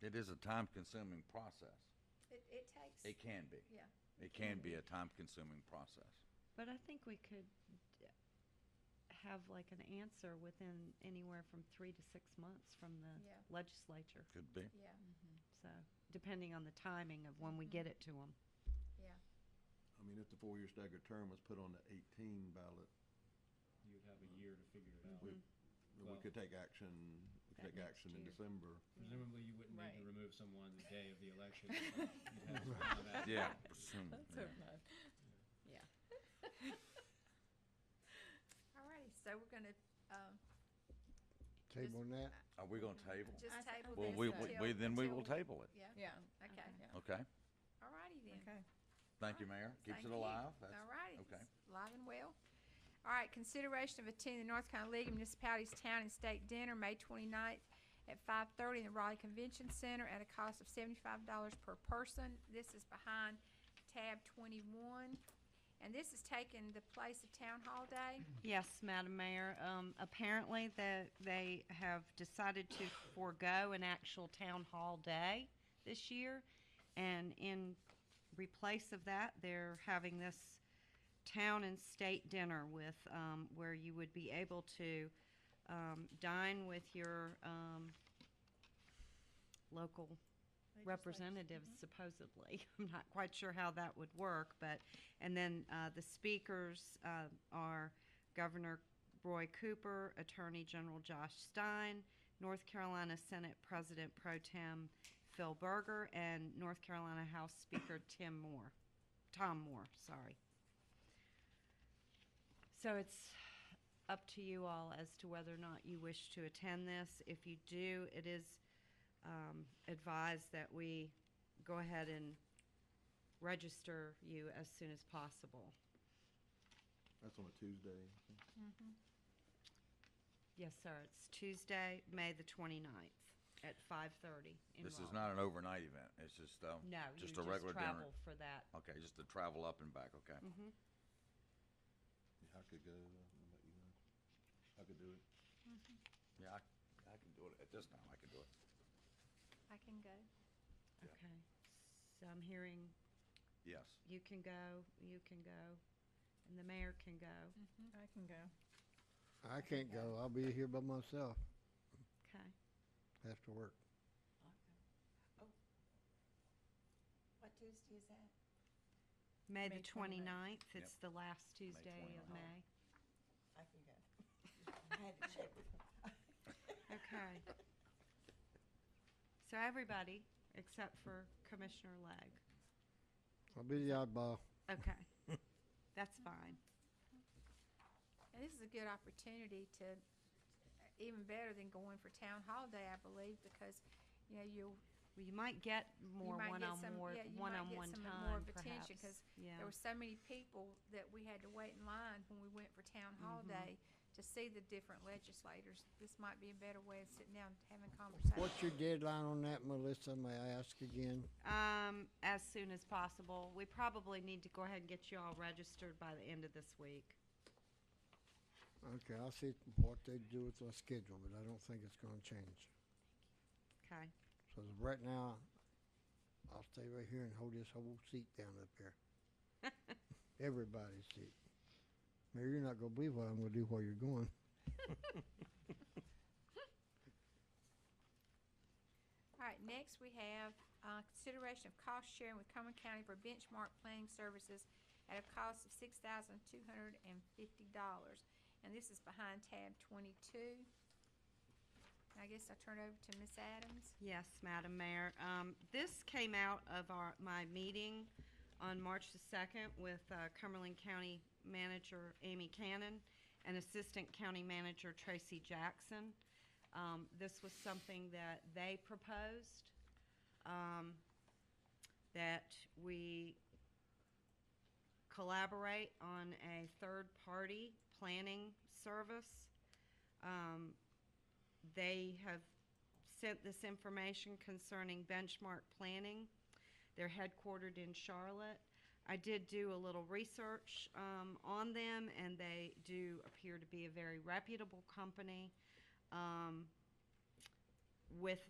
it is a time-consuming process. It, it takes, It can be. yeah. It can be a time-consuming process. But I think we could d- have like an answer within anywhere from three to six months from the Yeah. legislature. Could be. Yeah, So, depending on the timing of when we get it to them. yeah. I mean, if the four-year staggered term was put on the eighteen ballot, You'd have a year to figure it out. we, we Well- could take action, we could That take next action in year. December. Presumably, you wouldn't need Right. to remove someone the day of the election. You'd have to file that. Yeah. presume- Let's yeah. hope not. Yeah. All righty, so we're gonna, um, Table on that? Are we gonna table? just I- table Well, this we, we, until- we- then we will until- table it. Yeah, Yeah. okay. Yeah. Okay. All righty then. Okay. Thank you, Mayor. Keeps Thank it you. alive. That's- All righty. Okay. Live and well. All right, consideration of attending the North Carolina League of Municipalities Town and State Dinner, May 29th at five-thirty in the Raleigh Convention Center at a cost of seventy-five dollars per person. This is behind tab twenty-one, and this is taking the place of Town Hall Day. Yes, Madam Mayor. Um, apparently, the, they have decided to forego an actual town hall day this year. And in replace of that, they're having this town and state dinner with, um, where you would be able to, um, dine with your, um, local representatives supposedly. I'm not quite sure how that would work, but, and then uh, the speakers uh, are Governor Roy Cooper, Attorney General Josh Stein, North Carolina Senate President Pro Tem Phil Berger, and North Carolina House Speaker Tim Moore, Tom Moore, sorry. So it's up to you all as to whether or not you wish to attend this. If you do, it is um, advised that we go ahead and register you as soon as possible. That's on a Tuesday. Yes, sir, it's Tuesday, May the 29th at 5:30 in This is Raleigh. not an overnight event. It's just, uh, No, you just just a regular travel dinner. for that. Mm-hmm. Okay, just to travel up and back, okay? Yeah, I could go, I don't know about you guys. I could do it. Yeah, I, I can do it. At this time, I can do it. I can go. Yeah. Okay, so I'm hearing Yes. you can go, you can go, and the mayor can go. I can go. I can't go. I'll be here by myself Okay. after work. What Tuesday is that? May the May 29th. 29th, it's the Yep. last Tuesday of 29th. May. I can go. I had to check with her. Okay. So everybody, except for Commissioner Legg. I'll be the oddball. Okay. That's fine. And this is a good opportunity to, even better than going for Town Hall Day, I believe, because, you know, you'll Well, you might get more you might get some- one-on-more, yeah, you might get one-on-one some time, more of attention, perhaps. 'cause Yeah. There were so many people that we had to wait in line when we went for town hall day to see the different legislators. This might be a better way of sitting down and having conversations. What's your deadline on that, Melissa? May I ask again? Um, as soon as possible. We probably need to go ahead and get you all registered by the end of this week. Okay, I'll see what they do with my schedule, but I don't think it's gonna change. Okay. So as of right now, I'll stay right here and hold this whole seat down up here. Everybody's seat. Mayor, you're not gonna believe what I'm gonna do while you're going. All right, next we have, uh, consideration of cost sharing with Coleman County for benchmark planning services at a cost of six thousand two hundred and fifty dollars. And this is behind tab twenty-two. I guess I'll turn it over to Ms. Adams. Yes, Madam Mayor. Um, This came out of our, my meeting on March the 2nd with uh, Cumberland County Manager Amy Cannon and Assistant County Manager Tracy Jackson. Um, This was something that they proposed, um, that we collaborate on a third-party planning service. Um, They have sent this information concerning benchmark planning. They're headquartered in Charlotte. I did do a little research um, on them, and they do appear to be a very reputable company um, with